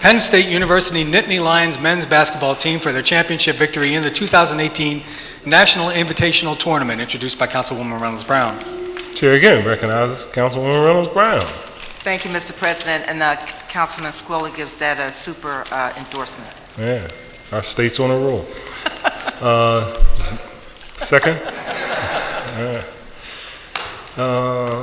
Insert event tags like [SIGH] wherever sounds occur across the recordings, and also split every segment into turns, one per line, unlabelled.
Penn State University Nittany Lions men's basketball team for their championship victory in the 2018 National Invitational Tournament, introduced by Councilwoman Reynolds Brown.
Chair again recognizes Councilwoman Reynolds Brown.
Thank you, Mr. President, and uh, Councilman Squilla gives that a super uh, endorsement.
Yeah, our state's on a [LAUGHS] roll. Uh, Second? All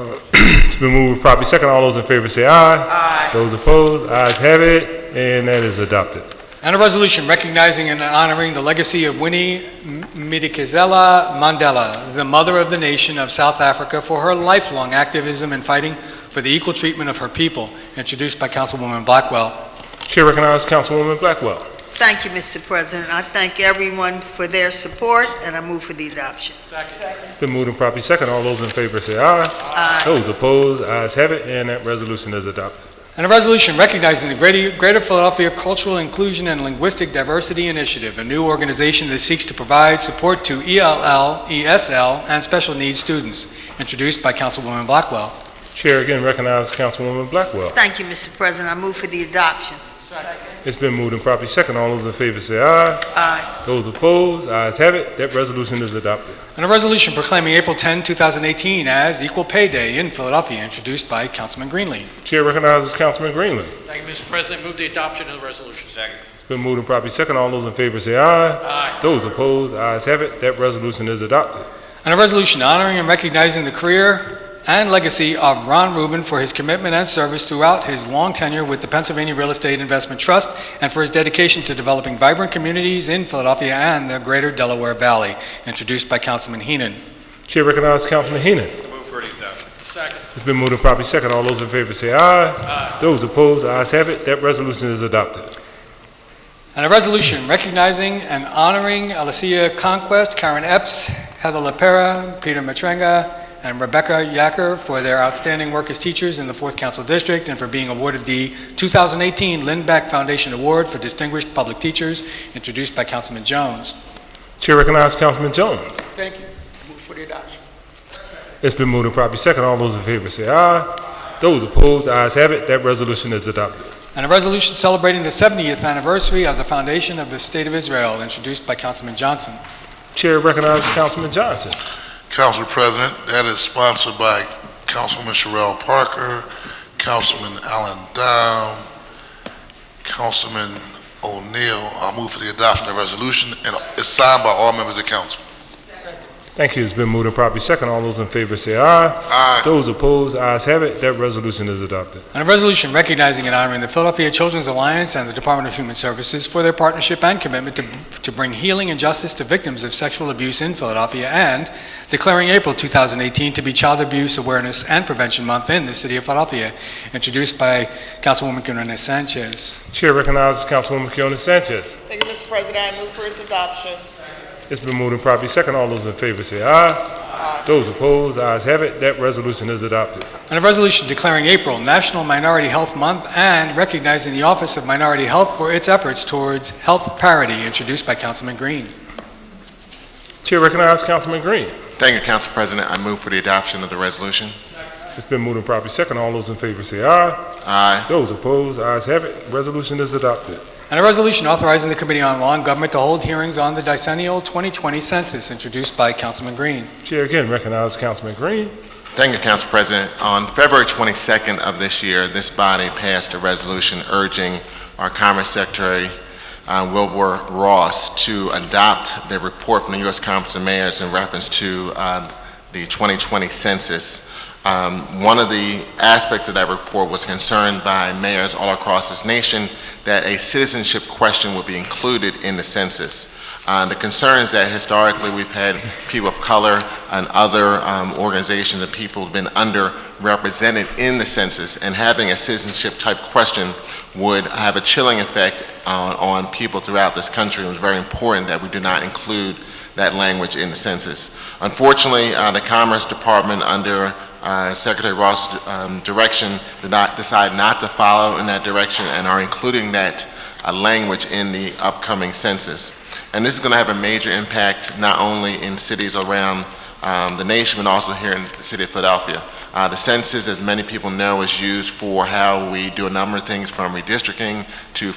right. Uh, [CLEARS THROAT] It's been moved properly second. All those in favor say aye. Aye. Those opposed, ayes have it, and that is adopted.
And a resolution recognizing and honoring the legacy of Winnie M- Madikizela Mandela, the mother of the nation of South Africa, for her lifelong activism in fighting for the equal treatment of her people, introduced by Councilwoman Blackwell.
Chair recognizes Councilwoman Blackwell.
Thank you, Mr. President. I thank everyone for their support, and I move for the adoption.
It's Been moved and properly second. All those in favor say aye. Aye. Those opposed, ayes have it, and that resolution is adopted.
And a resolution recognizing the Greater Greater Philadelphia Cultural Inclusion and Linguistic Diversity Initiative, a new organization that seeks to provide support to E ELL, ESL, and special needs students, introduced by Councilwoman Blackwell.
Chair again recognizes Councilwoman Blackwell.
Thank you, Mr. President. I move for the adoption.
It's been moved and properly second. All those in favor say aye. Aye. Those opposed, ayes have it. That resolution is adopted.
And a resolution proclaiming April 10, 2018 as Equal Pay Day in Philadelphia, introduced by Councilman Greenlee.
Chair recognizes Councilman Greenlee.
Thank you, Mr. President. Move the adoption of the resolution. Second.
It's been moved and properly second. All those in favor say aye.
Aye.
Those opposed, ayes have it. That resolution is adopted.
And a resolution honoring and recognizing the career and legacy of Ron Rubin for his commitment and service throughout his long tenure with the Pennsylvania Real Estate Investment Trust and for his dedication to developing vibrant communities in Philadelphia and the greater Delaware Valley, introduced by Councilman Heenan.
Chair recognizes Councilman Heenan.
Move for the adoption. Second.
It's been moved and properly second. All those in favor say aye. Aye. Those opposed, ayes have it. That resolution is adopted.
And a resolution recognizing and honoring Alicia Conquest, Karen Epps, Heather LaPera, Peter Matrenga, and Rebecca Yacker for their outstanding work as teachers in the 4th Council District and for being awarded the 2018 Lynn Beck Foundation Award for Distinguished Public Teachers, introduced by Councilman Jones.
Chair recognizes Councilman Jones.
Thank you. Move for the adoption.
It's been moved and properly second. All those in favor say aye. Those opposed, ayes have it. That resolution is adopted.
And a resolution celebrating the 70th anniversary of the foundation of the State of Israel, introduced by Councilman Johnson.
Chair recognizes Councilman Johnson.
Council President, that is sponsored by Councilman Sherrell Parker, Councilman Allen Dow, Councilman O'Neill. I move for the adoption of the resolution, and it's signed by all members of council.
Thank you. It's been moved and properly second. All those in favor say aye.
Aye.
Those opposed, ayes have it. That resolution is adopted.
And a resolution recognizing and honoring the Philadelphia Children's Alliance and the Department of Human Services for their partnership and commitment to, to bring healing and justice to victims of sexual abuse in Philadelphia and declaring April 2018 to be Child Abuse Awareness and Prevention Month in the city of Philadelphia, introduced by Councilwoman Gunnarina Sanchez.
Chair recognizes Councilwoman Keona Sanchez.
Thank you, Mr. President. I move for its adoption.
It's been moved and properly second. All those in favor say aye. Those opposed, ayes have it. That resolution is adopted.
And a resolution declaring April National Minority Health Month and recognizing the Office of Minority Health for its efforts towards health parity, introduced by Councilman Green.
Chair recognizes Councilman Green.
Thank you, Council President. I move for the adoption of the resolution.
It's been moved and properly second. All those in favor say aye.
Aye.
Those opposed, ayes have it. Resolution is adopted.
And a resolution authorizing the Committee on Law and Government to hold hearings on the decennial 2020 census, introduced by Councilman Green.
Chair again recognizes Councilman Green.
Thank you, Council President. On February 22nd of this year, this body passed a resolution urging our Commerce Secretary, uh, Wilbur Ross, to adopt the report from the U.S. Conference of Mayors in reference to uh, the 2020 census. Um, One of the aspects of that report was concerned by mayors all across this nation that a citizenship question would be included in the census. Uh, The concern is that historically, we've had people of color and other um, organizations and people have been underrepresented in the census, and having a citizenship-type question would have a chilling effect on, on people throughout this country. It was very important that we do not include that language in the census. Unfortunately, uh, the Commerce Department, under uh, Secretary Ross' um, direction, did not, decide not to follow in that direction and are including that uh, language in the upcoming census. And this is going to have a major impact not only in cities around um, the nation, but also here in the city of Philadelphia. Uh, The census, as many people know, is used for how we do a number of things, from redistricting to